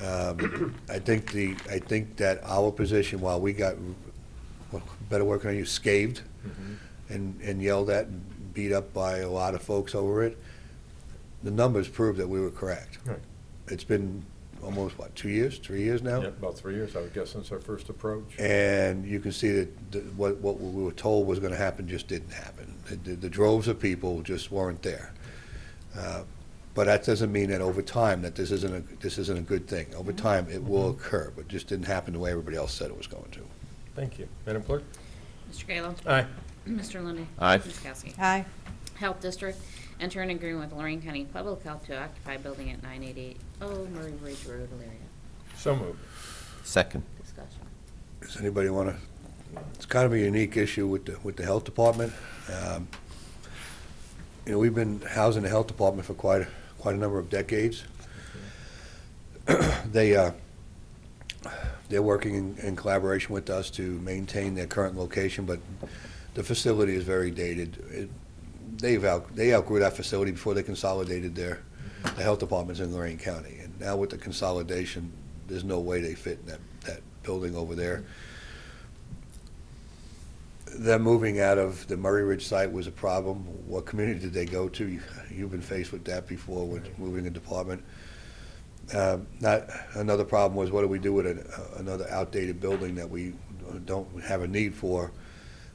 Um, I think the, I think that our position, while we got, well, better work on you, scathed Mm-hmm. and and yelled at and beat up by a lot of folks over it, the numbers prove that we were correct. Right. It's been almost, what, two years, three years now? Yeah, about three years, I would guess, since our first approach. And you can see that the- what, what we were told was going to happen just didn't happen. The- The droves of people just weren't there. Uh, But that doesn't mean that over time, that this isn't, a this isn't a good thing. Over time, it will occur, but just didn't happen the way everybody else said it was going to. Thank you. Madam Clerk? Mr. Kayla. Aye. Mr. Lundey. Aye. Ms. Kowski. Aye. Health District, enter an agreement with Lorraine County Public Health to occupy building at 988 Oh Murray Ridge Road, Elyria. So moved. Second. Discussion. Does anybody want to, it's kind of a unique issue with the, with the health department. Um, You know, we've been housing the health department for quite, quite a number of decades. They, uh, they're working in- in collaboration with us to maintain their current location, but the facility is very dated. It- They've out, they outgrew that facility before they consolidated their, the health departments in Lorraine County. And now with the consolidation, there's no way they fit in that, that building over there. Them moving out of the Murray Ridge site was a problem. What community did they go to? You- You've been faced with that before with moving a department. Uh, Not, another problem was what do we do with an- uh, another outdated building that we don't have a need for?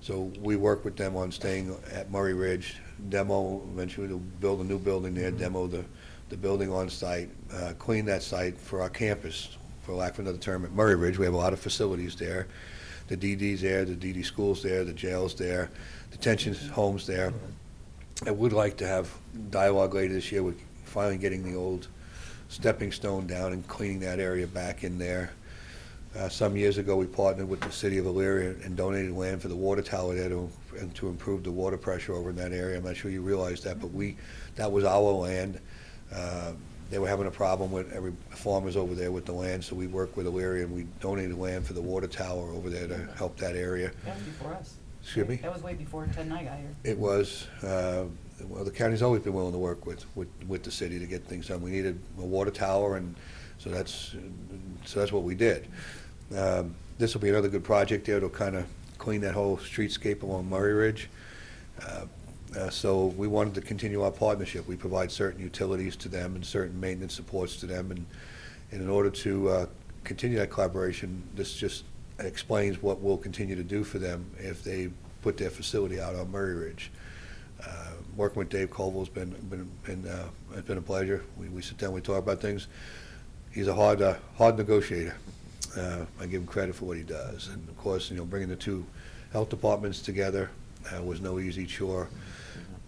So we work with them on staying at Murray Ridge, demo, eventually to build a new building there, demo the, the building on site, uh, clean that site for our campus, for lack of another term, at Murray Ridge. We have a lot of facilities there. The DD's there, the DD school's there, the jail's there, detention home's there. I would like to have dialogue later this year with finally getting the old stepping stone down and cleaning that area back in there. Uh, Some years ago, we partnered with the city of Elyria and donated land for the water tower there to, and to improve the water pressure over in that area. I'm not sure you realize that, but we, that was our land. Uh, They were having a problem with every, farmers over there with the land, so we worked with Elyria and we donated land for the water tower over there to help that area. That was before us. Excuse me? That was way before Ted and I got here. It was, uh, well, the county's always been willing to work with, with, with the city to get things done. We needed a water tower, and so that's, so that's what we did. Um, This will be another good project there to kind of clean that whole streetscape along Murray Ridge. Uh, uh, So we wanted to continue our partnership. We provide certain utilities to them and certain maintenance supports to them, and, and in order to uh, continue that collaboration, this just explains what we'll continue to do for them if they put their facility out on Murray Ridge. Uh, Working with Dave Colville's been, been, been, uh, it's been a pleasure. We, we sit down, we talk about things. He's a hard, uh, hard negotiator. Uh, I give him credit for what he does. And of course, you know, bringing the two health departments together uh, was no easy chore.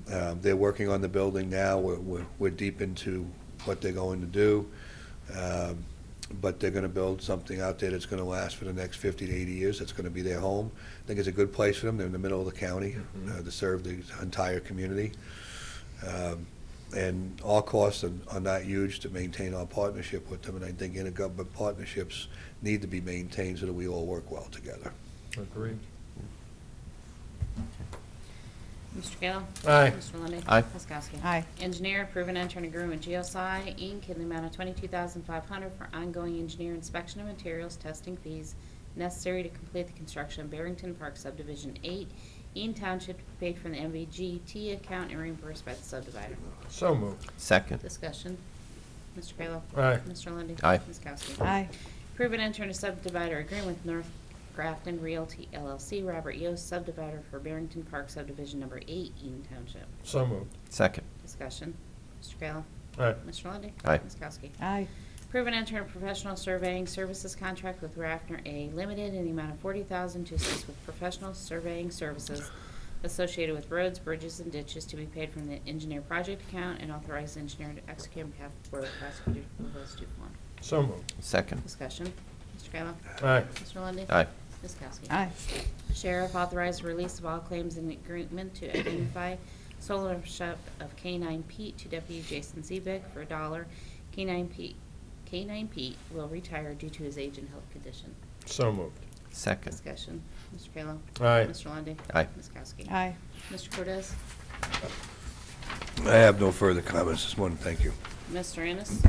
Uh, They're working on the building now. We're, we're, we're deep into what they're going to do. Um, But they're gonna build something out there that's gonna last for the next fifty to eighty years. That's gonna be their home. I think it's a good place for them. They're in the middle of the county, Mhm. uh, to serve the entire community. Um, And our costs are are not huge to maintain our partnership with them, and I think intergovernmental partnerships need to be maintained so that we all work well together. Agreed. Mr. Kayla. Aye. Mr. Lundey. Aye. Ms. Kowski. Aye. Engineer, approve and enter an agreement with GSI, Inc. in the amount of 22500 for ongoing engineer inspection of materials, testing fees necessary to complete the construction of Barrington Park Subdivision 8, Eaton Township, to be paid from the MVGT account and reimbursed by the subdivider. So moved. Second. Discussion. Mr. Kayla. Aye. Mr. Lundey. Aye. Ms. Kowski. Aye. Approve and enter a subdivider agreement with North Grafton Realty LLC, Robert Yost, subdivider for Barrington Park subdivision number eight, Eaton Township. So moved. Second. Discussion. Mr. Kayla. Aye. Mr. Lundey. Aye. Ms. Kowski. Aye. Approve and enter a professional surveying services contract with Raffner A. Limited in the amount of forty thousand to assist with professional surveying services associated with roads, bridges, and ditches to be paid from the engineer project account and authorize the engineer to execute on behalf of the Board of Prosecutors of West Dupont. So moved. Second. Discussion. Mr. Kayla. Aye. Mr. Lundey. Aye. Ms. Kowski. Aye. Sheriff authorized release of all claims in agreement to identify sole ownership of K-9 Pete to Deputy Jason Zebick for a dollar. K-9 Pete, K-9 Pete will retire due to his age and health condition. So moved. Second. Discussion. Mr. Kayla. Aye. Mr. Lundey. Aye. Ms. Kowski. Aye. Mr. Cortez. I have no further comments this morning. Thank you. Mr. Ennis.